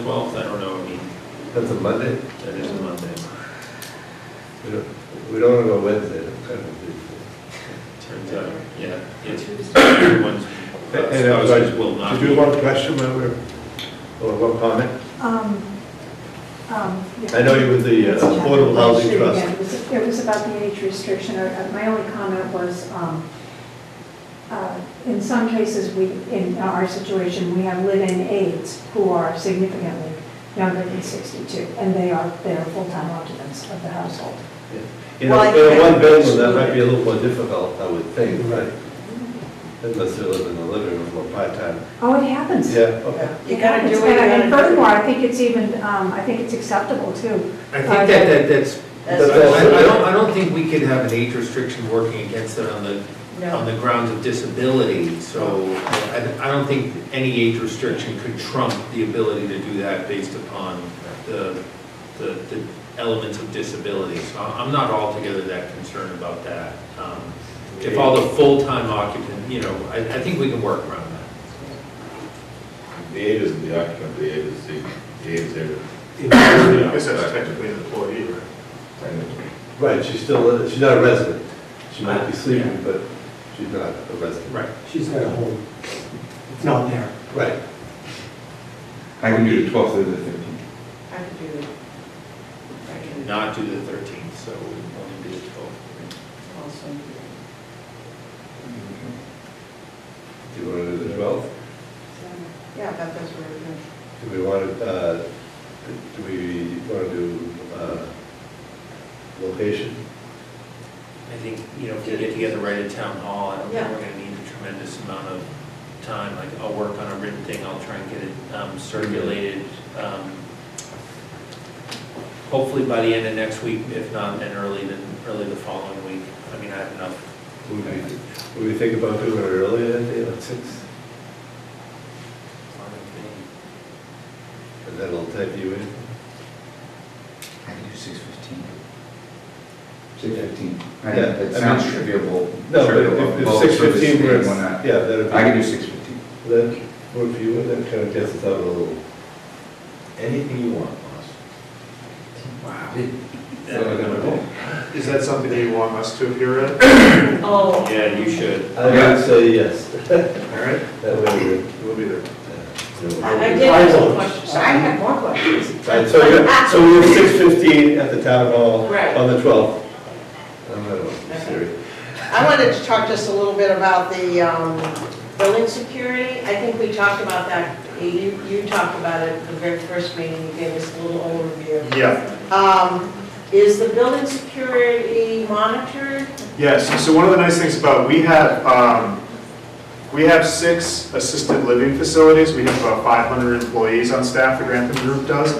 Twelfth, I don't know, I mean, That's a Monday? that is a Monday. We don't, we don't want to go Wednesday, that's kind of beautiful. Turns out, yeah, it's, Tuesday. everyone's, spouses will not Did you be. have one question, when we were- or Oh, one comment? Um, um, yeah. I know you with the uh, Affordable Housing Actually, yeah, Trust. It was- it was about the age restriction. I- I- My only comment was, um, uh, in some cases, we, in our situation, we have live-in aides who are significantly younger than 62, and they are, they are full-time occupants of the household. You Well, know, I in think- a one bedroom, that might be a little more difficult, I would think, Mm-hmm. right? Unless you live in the living room or part-time. Oh, it happens. Yeah, okay. You gotta do It what happens. you And- gotta do. And furthermore, I think it's even, um, I think it's acceptable, too. Uh, I think that, that, that's, That's- I I- I don't, I don't think we can have an age restriction working against it on the, on No, the grounds of disability, so I, I don't think any age restriction could trump the ability to do that based upon the, the, the elements of disability, so I'm I'm not altogether that concerned about that. Um, If all the full-time occupant, you know, I, I think we can work around that. The aide isn't the occupant, the aide is the, the aide's there. I guess that's technically an employee, right? Right, she's still, she's not a resident. She might be Ah, yeah. sleeping, but she's not a resident. Right. She's got a home. It's not there. Right. I can do the twelfth or the fifteenth. I can do it. I can Not do the thirteenth, so only do the twelfth. also do it. Do you want to do the 12th? So, Yeah, that does work. yeah. Do we want to, uh, do we want to do uh, location? I think, you know, if we get together right at town hall, I don't think we're gonna need a tremendous amount of time, like, I'll work on a written thing, I'll try and get it um, circulated, um, hopefully by the end of next week, if not, then early, then early the following week, I mean, I have enough. Would we, would we think about doing it earlier that day, like 6? time to And that'll type you in? I can do six fifteen. Six Six fifteen. Yeah, I It mean- sounds trivial. No, but trivial, if- if well, 6:15 service works, day, why not? yeah, that'd I can be, do six fifteen. that work for you, and that kind of gets us out a little. Anything you want, boss. Is that something that you want us to appear at? Oh. Yeah, you should. I would say yes. All right, That way we're. we'll be there. I did have some questions, I had more questions. Right, so you're, so we have six fifteen at the town hall Right. on the twelfth. I'm not serious. I wanted to talk just a little bit about the um, building security. I think we talked about that, you, you talked about it the very first meeting, you gave us a little overview. Yeah, Um, Is the building security monitored? yes, so one of the nice things about, we have, um, we have six assisted living facilities. We have about 500 employees on staff, the Grantham Group does.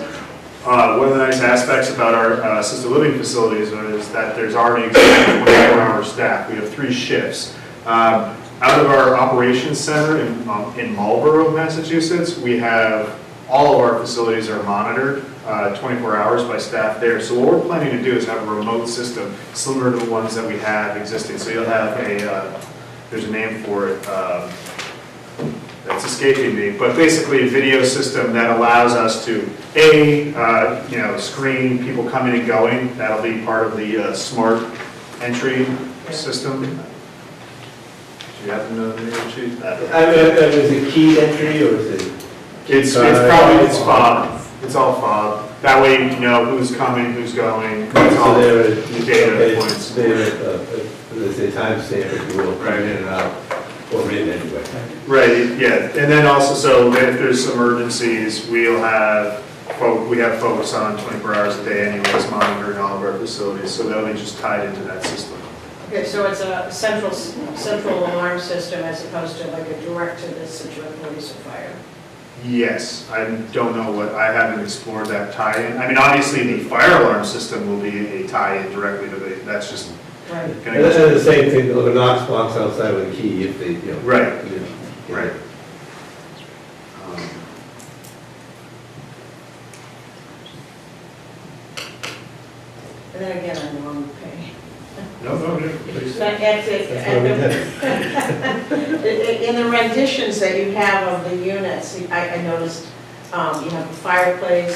Uh, One of the nice aspects about our uh, assisted living facilities is that there's already existing 24-hour staff. We have three shifts. Um, Out of our operations center in um, in Marlborough, Massachusetts, we have, all of our facilities are monitored uh, 24 hours by staff there. So what we're planning to do is have a remote system similar to the ones that we have existing. So you'll have a, uh, there's a name for it, um, that's escaping me, but basically a video system that allows us to, A, uh, you know, screen people coming and going, that'll be part of the uh, smart entry system. Do you happen to know the name, Chief? I mean, I mean, is it key entry or is it? It's, it's probably, it's fob, it's all fob, that way you know who's coming, who's going, it's all So there the is- data okay, points. There, uh, uh, they say timestamp if you will, Right. right in and out, or read anyway. Right, yeah, and then also, so if there's emergencies, we'll have, fo- we have folks on 24 hours a day anyways monitoring all of our facilities, so that'll be just tied into that system. Okay, so it's a central, central alarm system as opposed to like a direct to the Situate Police or Fire? Yes, I don't know what, I haven't explored that tie-in. I mean, obviously, the fire alarm system will be a tie-in directly to the, that's just Right. gonna And that's go. the same thing, the Knox box outside with a key if they, you know. Right, you know, you know. right. Um, And then again, I'm on the pay. No, no, no, please. But that's it. That's what we did. In in the renditions that you have of the units, I I noticed um, you have a fireplace,